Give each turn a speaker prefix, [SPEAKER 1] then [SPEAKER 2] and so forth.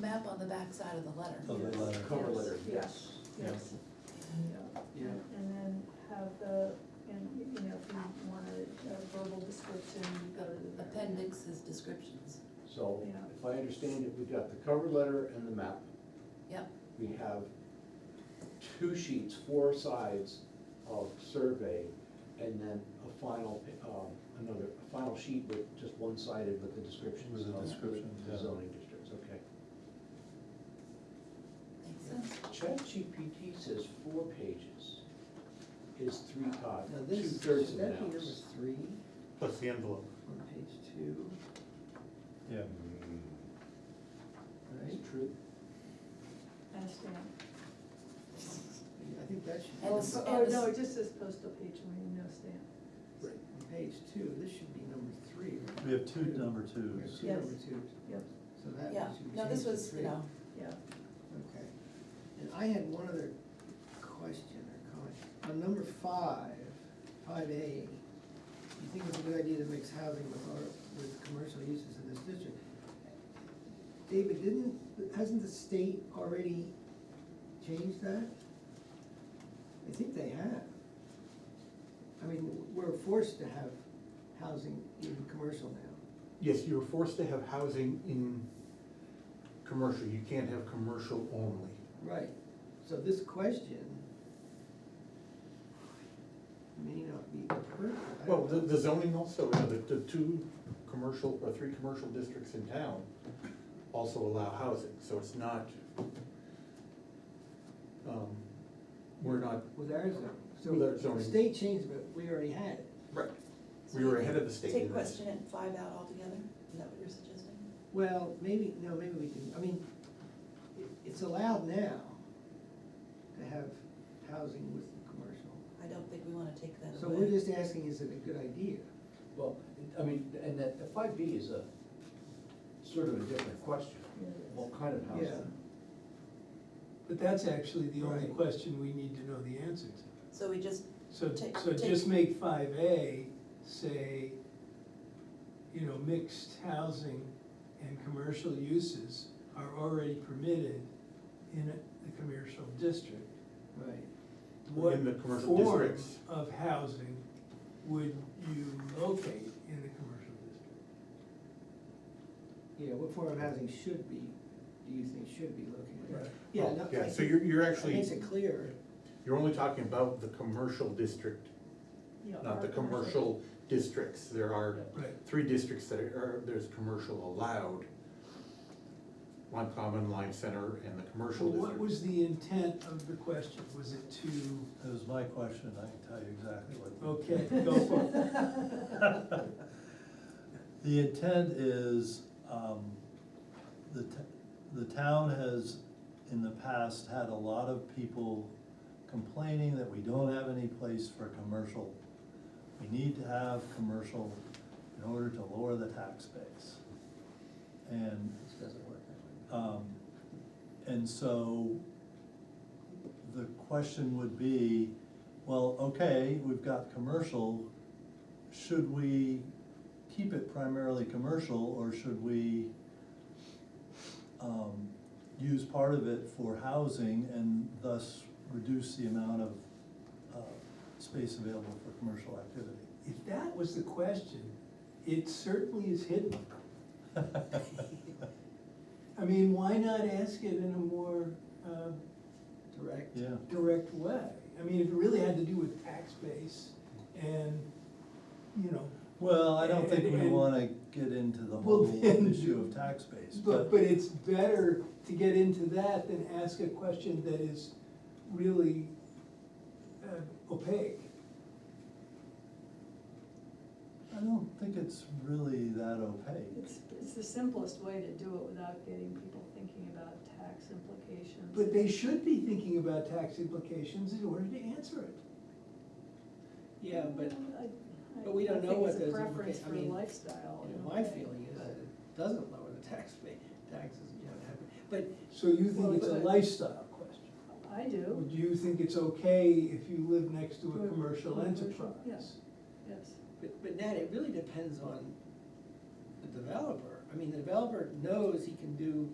[SPEAKER 1] map on the backside of the letter.
[SPEAKER 2] Oh,
[SPEAKER 3] Of the letter.
[SPEAKER 4] Cover letter, yes.
[SPEAKER 3] Yes.
[SPEAKER 4] Yeah.
[SPEAKER 5] And uh, and then have the, and, you know, if you want a a verbal description, you go to the.
[SPEAKER 1] Appendix is descriptions,
[SPEAKER 4] So
[SPEAKER 5] Yeah.
[SPEAKER 4] if I understand it, we've got the cover letter and the map.
[SPEAKER 1] yep,
[SPEAKER 4] We have two sheets, four sides of survey, and then a final, pa- um, another, a final sheet with just one-sided with the descriptions.
[SPEAKER 3] With the
[SPEAKER 4] of
[SPEAKER 3] descriptions, yeah.
[SPEAKER 4] The zoning districts, okay.
[SPEAKER 1] makes sense.
[SPEAKER 4] ChatGPT says four pages is three copies,
[SPEAKER 6] Now
[SPEAKER 4] two
[SPEAKER 6] this,
[SPEAKER 4] thirds of an
[SPEAKER 6] should that be number
[SPEAKER 4] ounce.
[SPEAKER 6] three
[SPEAKER 3] Plus the envelope.
[SPEAKER 6] on page two,
[SPEAKER 3] Yeah.
[SPEAKER 6] right?
[SPEAKER 4] It's true.
[SPEAKER 5] Understand.
[SPEAKER 6] I think that should be,
[SPEAKER 1] And the-
[SPEAKER 6] number-
[SPEAKER 5] Oh, no, it just says postal page, I mean, no stamp.
[SPEAKER 6] on page two, this should be number three. right?
[SPEAKER 3] We have two number
[SPEAKER 6] We have
[SPEAKER 3] twos.
[SPEAKER 6] two
[SPEAKER 5] Yes.
[SPEAKER 6] number twos,
[SPEAKER 5] Yep,
[SPEAKER 6] so that
[SPEAKER 1] Yeah,
[SPEAKER 6] should be
[SPEAKER 1] no, this
[SPEAKER 6] changed to
[SPEAKER 1] was, you
[SPEAKER 6] three.
[SPEAKER 1] know,
[SPEAKER 5] yeah.
[SPEAKER 6] Okay, and I had one other question or comment, on number five, five A, you think it's a good idea to mix housing with our, with commercial uses in this district? David, didn't, hasn't the state already changed that? I think they have. I mean, we're forced to have housing in commercial now,
[SPEAKER 2] Yes, you're forced to have housing in commercial, you can't have commercial only.
[SPEAKER 6] right, so this question may not be perfect. I
[SPEAKER 2] Well,
[SPEAKER 6] don't
[SPEAKER 2] the,
[SPEAKER 6] know.
[SPEAKER 2] the zoning also, you know, the, the two commercial, or three commercial districts in town also allow housing, so it's not, um, we're not,
[SPEAKER 6] With our zoning,
[SPEAKER 2] With our
[SPEAKER 6] so the
[SPEAKER 2] zoning.
[SPEAKER 6] state changed, but we already had it.
[SPEAKER 2] right, we were ahead of the state
[SPEAKER 1] Take
[SPEAKER 2] in this.
[SPEAKER 1] question and five out altogether, is that what you're suggesting?
[SPEAKER 6] Well, maybe, no, maybe we can, I mean, it, it's allowed now to have housing with commercial.
[SPEAKER 1] I don't think we wanna take that away.
[SPEAKER 6] So we're just asking, is it a good idea?
[SPEAKER 4] Well, I mean, and that, the five B is a sort of a different question,
[SPEAKER 5] Yeah, it is.
[SPEAKER 4] what kind of
[SPEAKER 6] Yeah,
[SPEAKER 4] housing?
[SPEAKER 7] But that's actually the only
[SPEAKER 6] Right.
[SPEAKER 7] question we need to know the answer to.
[SPEAKER 1] So we just,
[SPEAKER 7] So,
[SPEAKER 1] Take-
[SPEAKER 7] so
[SPEAKER 1] take-
[SPEAKER 7] just make five A say, you know, mixed housing and commercial uses are already permitted in a- the commercial district.
[SPEAKER 6] right.
[SPEAKER 7] What
[SPEAKER 2] In the commercial
[SPEAKER 7] form
[SPEAKER 2] districts.
[SPEAKER 7] of housing would you locate in the commercial district?
[SPEAKER 6] Yeah, what form of housing should be, do you think should be located?
[SPEAKER 7] Right.
[SPEAKER 6] Yeah,
[SPEAKER 2] Oh,
[SPEAKER 6] no,
[SPEAKER 2] yeah,
[SPEAKER 6] I
[SPEAKER 2] so
[SPEAKER 6] think-
[SPEAKER 2] you're- you're
[SPEAKER 6] that
[SPEAKER 2] actually-
[SPEAKER 6] Makes it clearer,
[SPEAKER 2] You're only talking about the commercial district,
[SPEAKER 5] Yeah,
[SPEAKER 2] not the
[SPEAKER 5] our
[SPEAKER 2] commercial districts, there are
[SPEAKER 7] Right,
[SPEAKER 2] three districts that are, there's commercial allowed. Lime Common, Lime Center, and the commercial
[SPEAKER 7] well, what
[SPEAKER 2] district.
[SPEAKER 7] was the intent of the question? Was it to?
[SPEAKER 3] That was my question, I can tell you exactly what. the-
[SPEAKER 7] Okay, go for it.
[SPEAKER 3] The intent is, um, the, t- the town has, in the past, had a lot of people complaining that we don't have any place for commercial. We need to have commercial in order to lower the tax base. And
[SPEAKER 6] this doesn't work that way.
[SPEAKER 3] um, And so the question would be, well, okay, we've got commercial, should we keep it primarily commercial or should we um, use part of it for housing and thus reduce the amount of uh, space available for commercial
[SPEAKER 7] If that was the question, it certainly is hidden.
[SPEAKER 3] activity?
[SPEAKER 7] I mean, why not ask it in a more uh,
[SPEAKER 6] Direct?
[SPEAKER 3] Yeah.
[SPEAKER 7] direct way? I mean, if it really had to do with tax base and, you know,
[SPEAKER 3] Well, I don't think
[SPEAKER 7] And-
[SPEAKER 3] we
[SPEAKER 7] and-
[SPEAKER 3] wanna get into the
[SPEAKER 7] Well,
[SPEAKER 3] whole
[SPEAKER 7] then-
[SPEAKER 3] issue of tax base,
[SPEAKER 7] but, but it's better to get into that than ask a question that is really uh, opaque.
[SPEAKER 3] I don't think it's really that opaque.
[SPEAKER 5] It's, it's the simplest way to do it without getting people thinking about tax implications.
[SPEAKER 7] But they should be thinking about tax implications in order to answer it.
[SPEAKER 6] Yeah, but
[SPEAKER 5] I- I-
[SPEAKER 6] but we don't
[SPEAKER 5] I
[SPEAKER 6] know
[SPEAKER 5] think
[SPEAKER 6] what
[SPEAKER 5] it's a
[SPEAKER 6] those
[SPEAKER 5] preference
[SPEAKER 6] implica- I
[SPEAKER 5] for
[SPEAKER 6] mean,
[SPEAKER 5] lifestyle.
[SPEAKER 6] You
[SPEAKER 5] in
[SPEAKER 6] know,
[SPEAKER 5] a
[SPEAKER 6] my
[SPEAKER 5] way,
[SPEAKER 6] feeling is
[SPEAKER 5] but-
[SPEAKER 6] that it doesn't lower the tax rate, taxes, you know, but,
[SPEAKER 7] So you
[SPEAKER 5] Well,
[SPEAKER 7] think it's a
[SPEAKER 5] but-
[SPEAKER 7] lifestyle question?
[SPEAKER 5] I do,
[SPEAKER 7] Would you think it's okay if you live next to
[SPEAKER 5] To a
[SPEAKER 7] a commercial
[SPEAKER 5] commercial,
[SPEAKER 7] enterprise?
[SPEAKER 5] yes. yes.
[SPEAKER 6] but, but Nat, it really depends on the developer. I mean, the developer knows he can do